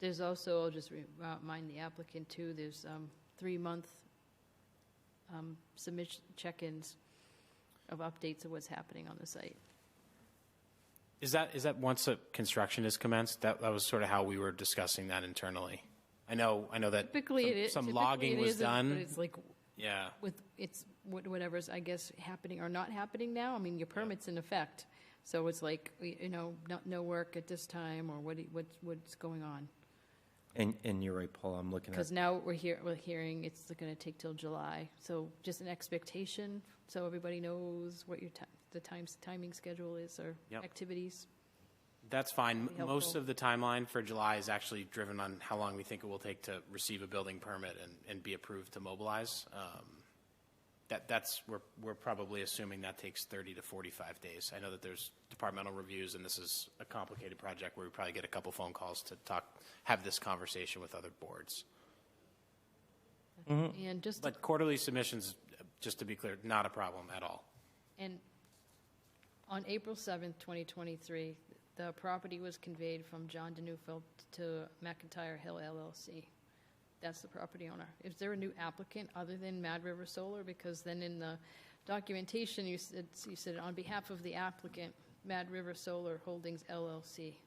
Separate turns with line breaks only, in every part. There's also, I'll just uh, remind the applicant too, there's um, three-month um, submission, check-ins of updates of what's happening on the site.
Is that, is that once a construction is commenced? That, that was sort of how we were discussing that internally. I know, I know that
Typically, it is.
some- some
typically
logging
it
was
isn't, But
done.
it's like
Yeah,
with, it's wh- whatever's, I guess, happening or not happening now. I mean, your permit's in effect. So it's like, y- you know, not, no work at this time or what, what's, what's going on.
And, and you're right, Paul, I'm looking at,
Because now we're here, we're hearing it's going to take till July. So just an expectation, so everybody knows what your ti- the times, timing schedule is or
Yep.
activities.
that's fine.
Be
Most
helpful.
of the timeline for July is actually driven on how long we think it will take to receive a building permit and, and be approved to mobilize. Um, That, that's, we're, we're probably assuming that takes 30 to 45 days. I know that there's departmental reviews, and this is a complicated project where we probably get a couple phone calls to talk, have this conversation with other boards.
And just,
Mm. But quarterly submissions, just to be clear, not a problem at all.
and on April 7th, 2023, the property was conveyed from John DeNewfield to McIntyre Hill LLC. That's the property owner. Is there a new applicant other than Mad River Solar? Because then in the documentation, you said, you said on behalf of the applicant, Mad River Solar Holdings LLC.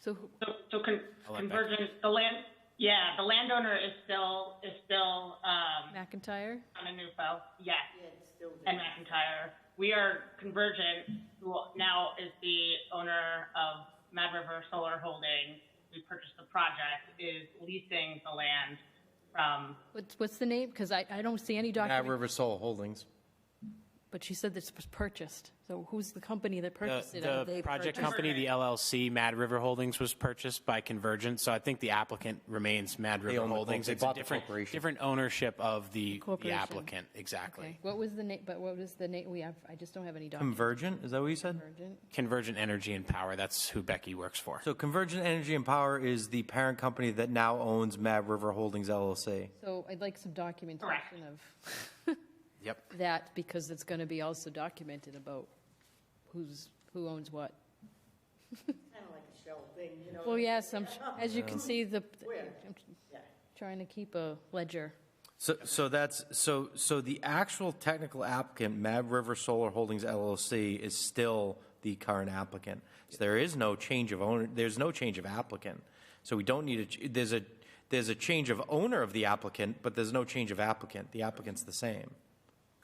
So who-
So, so con-
I'll let Becky-
convergence, the land, yeah, the landowner is still, is still, um,
McIntyre?
on a yes. And McIntyre. We are convergent, who now is the owner of Mad River Solar Holdings. We purchased the project, is leasing the land from,
What's, what's the name? Because I, I don't see any
at
document,
River Solar Holdings.
but she said this was purchased. So who's the company that
The,
purchased it? Are
the
they
project
purchased-
company, the LLC, Mad River Holdings, was purchased by Convergent, so I think the applicant remains Mad River
own the
Holdings.
corp- they
It's a
bought the
different,
corporation.
different ownership of the the
corporation.
applicant, exactly.
Okay. What was the name, but what was the name? We have, I just don't have any document.
Convergent, is that what you said?
Convergent.
Convergent Energy and Power, that's who Becky works for.
So Convergent Energy and Power is the parent company that now owns Mad River Holdings LLC.
So I'd like some documentation of
Yep.
that because it's going to be also documented about who's, who owns what.
Kind of like a shell thing, you know?
Well, yes, I'm, as you can see, the,
Where?
I'm
Yeah.
trying to keep a ledger.
So, so that's, so, so the actual technical applicant, Mad River Solar Holdings LLC, is still the current applicant. So there is no change of owner, there's no change of applicant. So we don't need a, ch- there's a, there's a change of owner of the applicant, but there's no change of applicant. The applicant's the same.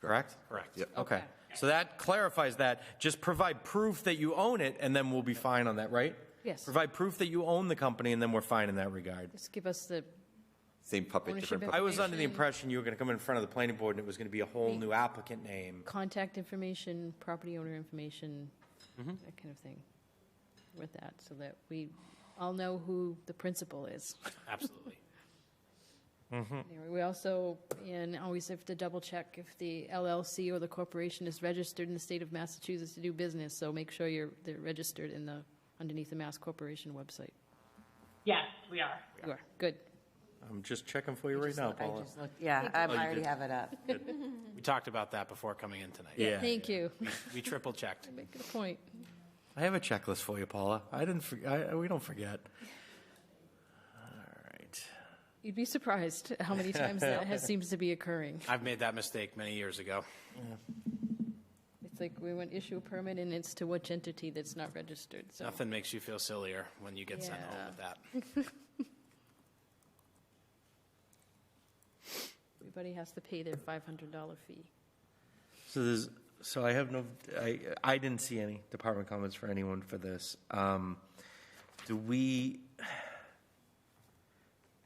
Correct?
Correct.
Okay. So that clarifies that. Just provide proof that you own it, and then we'll be fine on that, right?
Yes.
Provide proof that you own the company, and then we're fine in that regard.
Just give us the,
Same puppet,
Ownership
different
of-
I
puppet.
was under the impression you were going to come in front of the planning board and it was going to be a whole new applicant name.
contact information, property owner information, that kind of thing with that, so that we all know who the principal is.
Absolutely.
Anyway, We also, and always have to double check if the LLC or the corporation is registered in the state of Massachusetts to do business, so make sure you're, they're registered in the, underneath the Mass Corporation website.
yes, we are.
You are, good.
I'm just checking for you right now, Paula.
Yeah, I
you
already
did.
have it up.
We talked about that before coming in tonight.
Yeah.
Thank you.
We- We triple checked.
Make a point.
I have a checklist for you, Paula. I didn't, for- I, I- we don't forget. All right.
You'd be surprised how many times that has, seems to be occurring.
I've made that mistake many years ago.
It's like we went issue a permit and it's to which entity that's not registered, so.
Nothing makes you feel sillier when you get sent home
Yeah.
with that.
Everybody has to pay their $500 fee.
So there's, so I have no, I, I didn't see any department comments for anyone for this. Um, do we,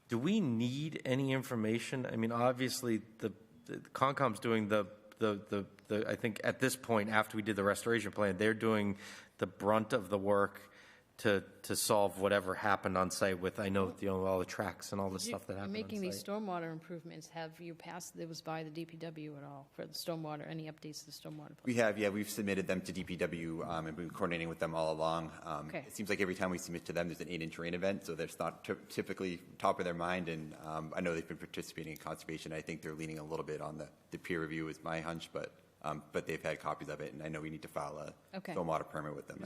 do we need any information? I mean, obviously, the, the Concom's doing the, the, the, the, I think at this point, after we did the restoration plan, they're doing the brunt of the work to, to solve whatever happened on site with, I know, you know, all the tracks and all the stuff that
You're
happened
Making
on
these
site.
stormwater improvements, have you passed, it was by the DPW at all for the stormwater, any updates to the stormwater? plan?
We have, yeah, we've submitted them to DPW, um, and been coordinating with them all along. Um,
Okay.
It seems like every time we submit to them, there's an eight-inch rain event, so that's not ty- typically top of their mind, and, um, I know they've been participating in conservation. I think they're leaning a little bit on the, the peer review is my hunch, but, um, but they've had copies of it, and I know we need to file a
Okay.
stormwater permit with them.